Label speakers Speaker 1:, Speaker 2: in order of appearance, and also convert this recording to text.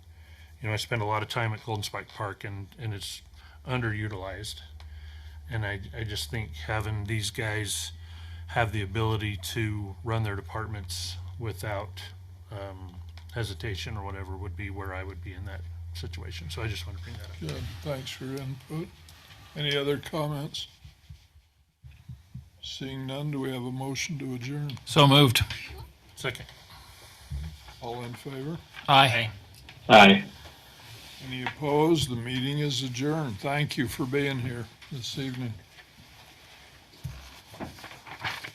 Speaker 1: you know, I spend a lot of time at Golden Spike Park and, and it's underutilized. And I, I just think having these guys have the ability to run their departments without um, hesitation or whatever would be where I would be in that situation. So I just want to bring that up.
Speaker 2: Good, thanks for your input. Any other comments? Seeing none, do we have a motion to adjourn?
Speaker 3: So moved.
Speaker 1: Second.
Speaker 2: All in favor?
Speaker 3: Aye.
Speaker 4: Aye.
Speaker 2: Any opposed? The meeting is adjourned. Thank you for being here this evening.